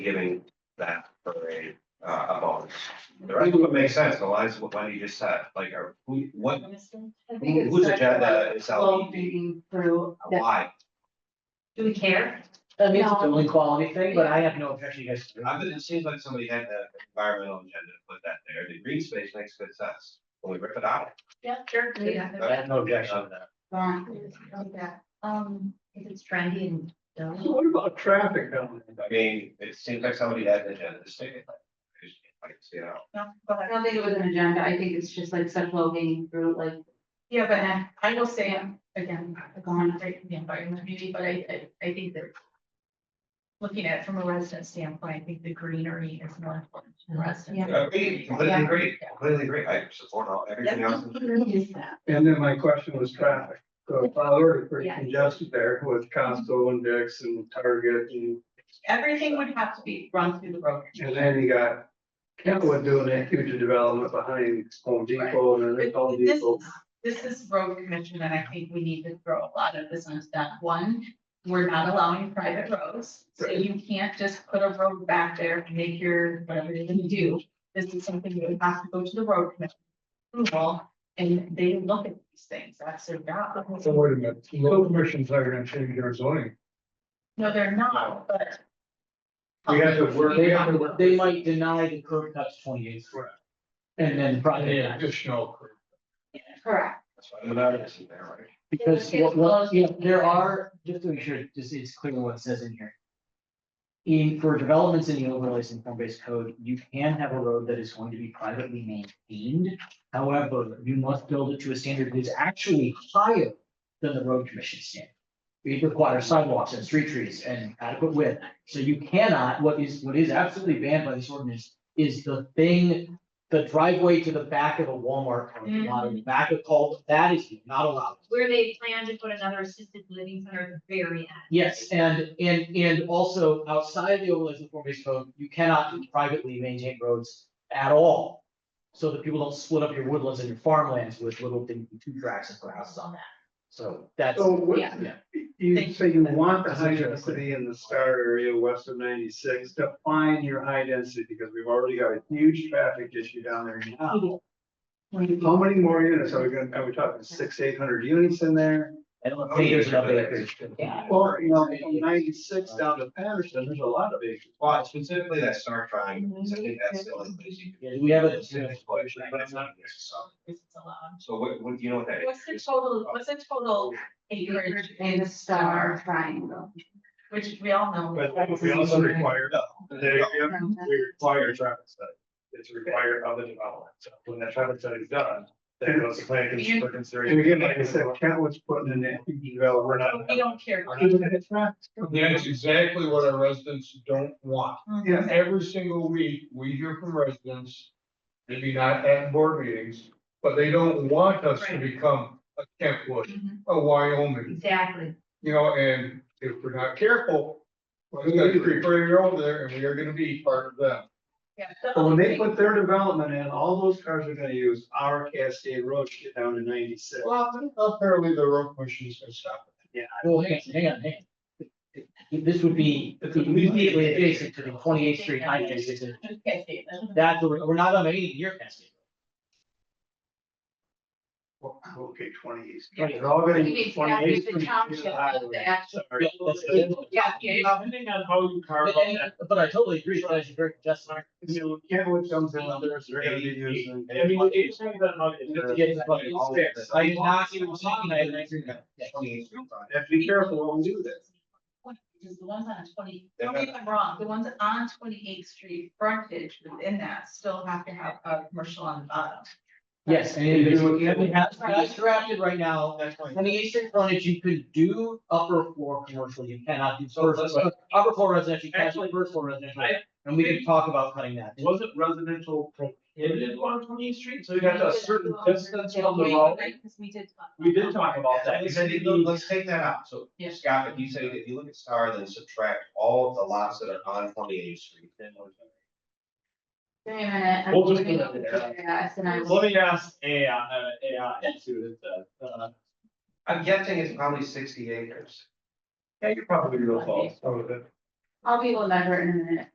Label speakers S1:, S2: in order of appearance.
S1: giving that for a, uh, a bonus. The rest of it makes sense, the lines of what you just said, like, are, who, what,
S2: I think it's
S1: whose
S2: such a
S1: agenda is
S2: slow
S1: LED?
S2: Reading through. that-
S1: Why?
S2: Do we care?
S3: That means it's
S2: No.
S3: only quality thing, but I have no objection, you guys. can do
S1: I
S3: it.
S1: mean, it seems like somebody had the environmental agenda to put that there, the green space makes good sense, when we rip it out. Uh,
S2: Yeah, sure.
S3: I have no objection to that.
S2: Um, if it's trendy and. dumb.
S4: What about traffic down
S1: I mean, it seems like somebody had an agenda to stick it, like, I just can't quite see it out.
S2: But-
S5: I don't think it was an agenda, I think it's just like such low hanging fruit, like,
S2: Yeah, but I will say, um, again, I've gone right in the environment maybe, but I, I, I think that. Looking at it from a resident standpoint, I think the greenery is more important to the resident.
S1: I agree, completely agree, completely agree, I support all, everything else.
S5: is that?
S4: there? And then my question was traffic. So oh, it's already pretty
S2: Yeah.
S4: congested there with Costco and Dick's and Target and,
S2: Everything would have to be run through the road.
S4: and then you got Kentwood doing that huge development behind Home Depot and then Home
S2: This
S4: Depot.
S2: is- This is road commission, and I think we need to throw a lot of this on that. One, we're not allowing private roads, so you can't just put a road back there and make your, whatever you're gonna do. This is something that would have to go to the road commission. approval, and they look at these things, that's their job.
S4: wait a minute, local commissions are gonna change their zoning.
S2: No, they're not, but.
S4: We have to work-
S3: They, they might deny the curb cuts twenty eighth. And then probably,
S4: additional.
S5: Correct.
S1: That's why the matter is there, right?
S3: because what, what, yeah, there are, just to make sure, this is clear what it says in here. In, for developments in the overlays and form-based code, you can have a road that is going to be privately maintained. However, you must build it to a standard that is actually higher than the road commission standard. It requires sidewalks and street trees and adequate width. So you cannot, what is, what is absolutely banned by this ordinance is the thing, the driveway to the back of a Walmart, or the lot, or the back of Cole, that is not allowed.
S5: Mm-hmm. Where they plan to put another assisted living center at the very end.
S3: Yes, and, and, and also outside of the overlay of the form based code, you cannot privately maintain roads at all. So that people don't split up your woodlands and your farmlands with little thing, two tracks and put houses on that. So that's,
S4: So what,
S5: Yeah.
S4: you say you want the high density in the star area west of ninety-six, define your high density because we've already got a huge traffic issue down there now. How many more units are we gonna, are we talking six, eight hundred units in there?
S3: I don't think there's enough acreage.
S2: Yeah.
S4: Well, you know, from ninety-six down to Patterson, there's a lot of acres.
S1: Well, specifically that star triangle, 'cause I think that's the only place you.
S3: Yeah, do we have a-
S1: It's an explosion, but it's not- so-
S2: This is allowed.
S1: So what, what, do you know what that is?
S2: What's the total, what's the total acreage in
S5: And the star triangle.
S2: which we all know.
S4: require, they, we require a traffic study. It's
S6: required of the development. So when that traffic study is done, then it goes to planning commission for
S4: And
S6: consideration.
S4: again, like I said, Kentwood's putting in that huge development.
S2: But We don't care.
S7: That's exactly what our residents don't want.
S4: Yeah.
S7: Every single week, we hear from residents, maybe not at board meetings, but they don't want us to become a Kentwood,
S2: Mhm.
S7: a Wyoming,
S5: Exactly.
S7: you know, and if we're not careful, we're gonna be right over there and we are gonna be part of them.
S2: Yeah.
S4: But when they put their development in, all those cars are gonna use our Cascade Road to get down to ninety-six.
S7: Well, apparently the road commission's gonna stop it.
S3: Well, hang on, hang on, hang on. This would be immediately adjacent to the twenty eighth street high density.
S2: Okay, see, that's-
S3: That's, where- we're not on any near Cascade.
S4: Oh, Okay, twenty-eight.
S3: Yeah.
S4: They're all gonna
S5: You mean
S4: use
S5: exactly,
S4: twenty-eight.
S5: it's the township of the actual-
S3: Yeah, that's it.
S2: Yeah, yeah.
S6: Depending on how you carve
S3: But,
S6: up that.
S3: but I totally agree, that is very just.
S4: You know, Kentwood comes in, others are gonna be using.
S6: I mean, it depends on how.
S3: to
S6: you-
S3: get to what is fair. I did not even talk about it, I agree with that.
S4: Have to be careful when we do this.
S2: Because the ones on twenty,
S1: They're
S2: don't get me wrong, the ones on twenty eighth street frontage within that still have to have a commercial on the bottom.
S3: Yes, and it is, we have, that's drafted right now,
S6: That's fine.
S3: twenty eighth street frontage, you could do upper floor commercial, you cannot do first, upper floor residential, you can't do first floor residential.
S6: I-
S3: And we can talk about cutting that.
S6: Wasn't residential prohibited on Twentieth Street, so you got a certain distance from the road.
S2: Because we did. talk
S6: We did talk about that.
S1: Like I said, you look- let's take that out, so
S2: Yeah.
S1: Scott, if you say that you look at star, then subtract all of the lots that are on twenty eighth street.
S5: Wait a minute. I'm
S6: We'll just
S5: looking
S6: put it
S5: at this, and I was-
S6: Let me ask AI, uh, AI, and see what it says. Uh,
S1: I'm guessing it's probably sixty acres.
S6: Yeah, you're probably real close.
S4: Some of it.
S5: I'll be able to lever it in a minute.